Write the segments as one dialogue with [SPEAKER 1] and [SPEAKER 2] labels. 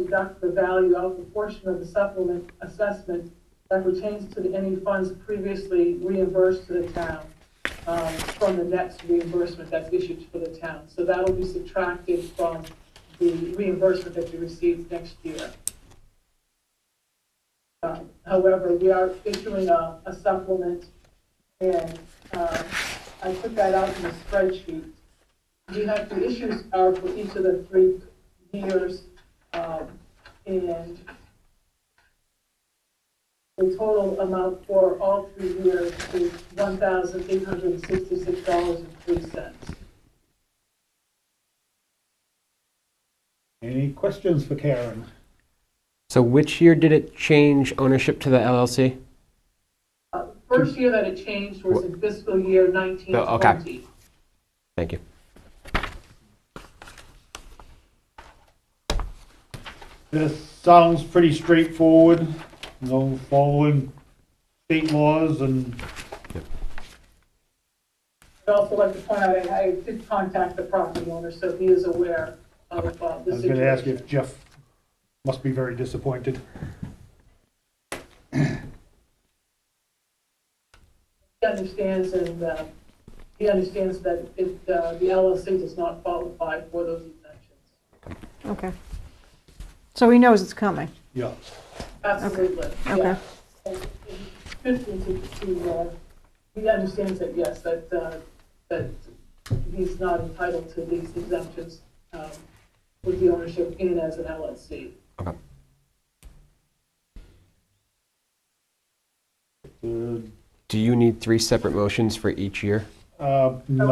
[SPEAKER 1] deduct the value of the portion of the supplement assessment that pertains to the- any funds previously reimbursed to the town um, from the next reimbursement that's issued for the town. So that will be subtracted from the reimbursement that you receive next year. Um, However, we are issuing a a supplement, and uh, I put that out in the spreadsheet. We have, the issues are uh, for each of the three years, um, and the total amount for all three years is $1,866.03.
[SPEAKER 2] Any questions for Karen?
[SPEAKER 3] So which year did it change ownership to the LLC?
[SPEAKER 1] Uh, First year that it changed was in fiscal year 1920.
[SPEAKER 3] Thank you.
[SPEAKER 2] This sounds pretty straightforward, you know, following state laws and,
[SPEAKER 1] I'd also like to point out, I I did contact the property owner, so he is aware of uh,
[SPEAKER 2] I
[SPEAKER 1] the
[SPEAKER 2] was gonna ask
[SPEAKER 1] situation.
[SPEAKER 2] if Jeff must be very disappointed.
[SPEAKER 1] He understands and, uh, he understands that it, uh, the LLC does not qualify for those exemptions.
[SPEAKER 4] Okay. So he knows it's coming.
[SPEAKER 2] Yeah.
[SPEAKER 1] Absolutely, yeah.
[SPEAKER 4] Okay.
[SPEAKER 1] And it's Good to, to, uh, he understands that, yes, that, uh, that he's not entitled to these exemptions um, with the ownership in as an LLC.
[SPEAKER 2] Uh,
[SPEAKER 3] Do you need three separate motions for each year?
[SPEAKER 2] uh, no.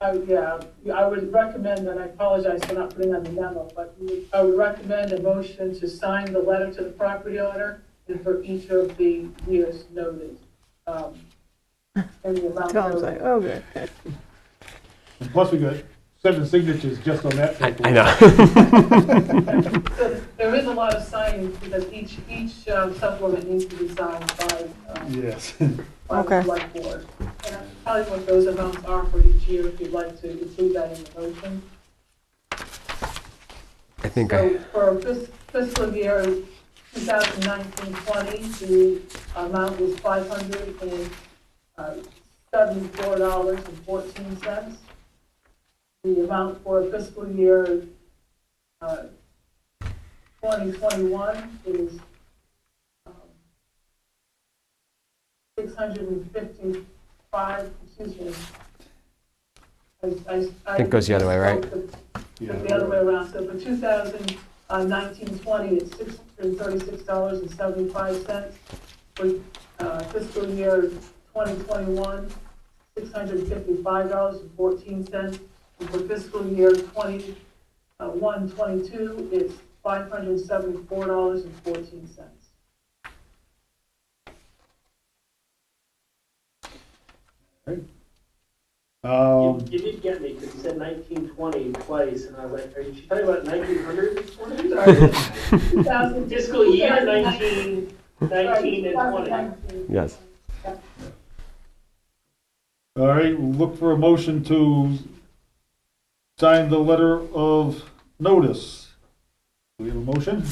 [SPEAKER 1] I, would- yeah, I would recommend, and I apologize for not putting on the memo, but we would- I would recommend a motion to sign the letter to the property owner and for each of the years noted. um, And the amount
[SPEAKER 4] Tom's like,
[SPEAKER 1] noted.
[SPEAKER 4] oh, good.
[SPEAKER 2] And Plus, we got seven signatures just on that.
[SPEAKER 3] I know.
[SPEAKER 1] So There is a lot of signing because each, each um, supplement needs to be signed by, um,
[SPEAKER 2] Yes.
[SPEAKER 1] by the
[SPEAKER 4] Okay.
[SPEAKER 1] select board. And that's probably what those amounts are for each year, if you'd like to include that in the motion.
[SPEAKER 3] I think I,
[SPEAKER 1] So for fis- fiscal year 2019-20, the amount was uh, $574.14. The amount for fiscal year uh, 2021 is um, 655, excuse me. I
[SPEAKER 3] I think it goes the other way, right?
[SPEAKER 1] it's the other way around, so for 2019-20, it's $636.75. For uh, fiscal year 2021, $655.14. And for fiscal year 21-22, it's $574.14.
[SPEAKER 5] You,
[SPEAKER 2] Um,
[SPEAKER 5] you did get me because you said 1920 twice, and I was like, "Are you she talking about 1900? What are you talking about?
[SPEAKER 1] 2000
[SPEAKER 5] Fiscal year 19, 19 and 20."
[SPEAKER 1] 2019.
[SPEAKER 3] yes.
[SPEAKER 2] all right, we'll look for a motion to sign the letter of notice. Do we have a motion?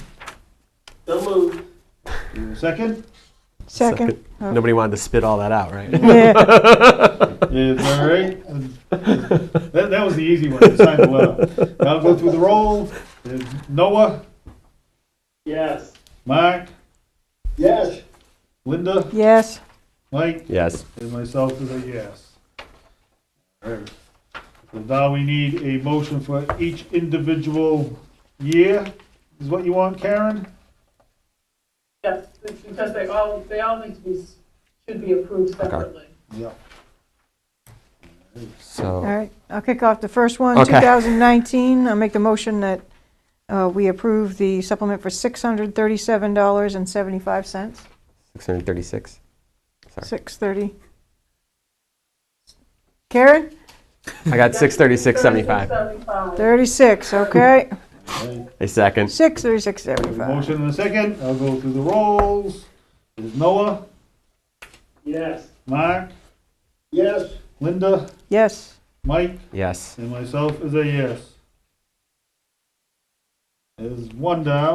[SPEAKER 5] So moved.
[SPEAKER 2] Do we have a second?
[SPEAKER 4] Second.
[SPEAKER 3] Nobody wanted to spit all that out, right?
[SPEAKER 4] Yeah,
[SPEAKER 2] It's all right. That, that was the easy one, to sign the letter. Now go through the roll. There's Noah,
[SPEAKER 5] Yes.
[SPEAKER 2] Mark,
[SPEAKER 5] Yes.
[SPEAKER 2] Linda,
[SPEAKER 4] yes.
[SPEAKER 2] Mike,
[SPEAKER 3] Yes.
[SPEAKER 2] and myself is a yes. All right. So now we need a motion for each individual year, is what you want, Karen?
[SPEAKER 1] Yes, it's because they all, they all need to be, should be approved separately.
[SPEAKER 2] Yeah.
[SPEAKER 4] All
[SPEAKER 3] So,
[SPEAKER 4] right, I'll kick off the first one,
[SPEAKER 3] Okay.
[SPEAKER 4] 2019. I'll make the motion that uh, we approve the supplement for $637.75.
[SPEAKER 3] 636.
[SPEAKER 4] 630. Karen?
[SPEAKER 3] I got 636.75.
[SPEAKER 1] 36.75.
[SPEAKER 4] 36, okay.
[SPEAKER 3] A second.
[SPEAKER 4] 636.75.
[SPEAKER 2] Motion in a second. I'll go through the rolls. There's Noah,
[SPEAKER 5] Yes.
[SPEAKER 2] Mark,
[SPEAKER 5] Yes.
[SPEAKER 2] Linda,
[SPEAKER 4] Yes.
[SPEAKER 2] Mike,
[SPEAKER 3] Yes.
[SPEAKER 2] And myself is a yes. There's one down.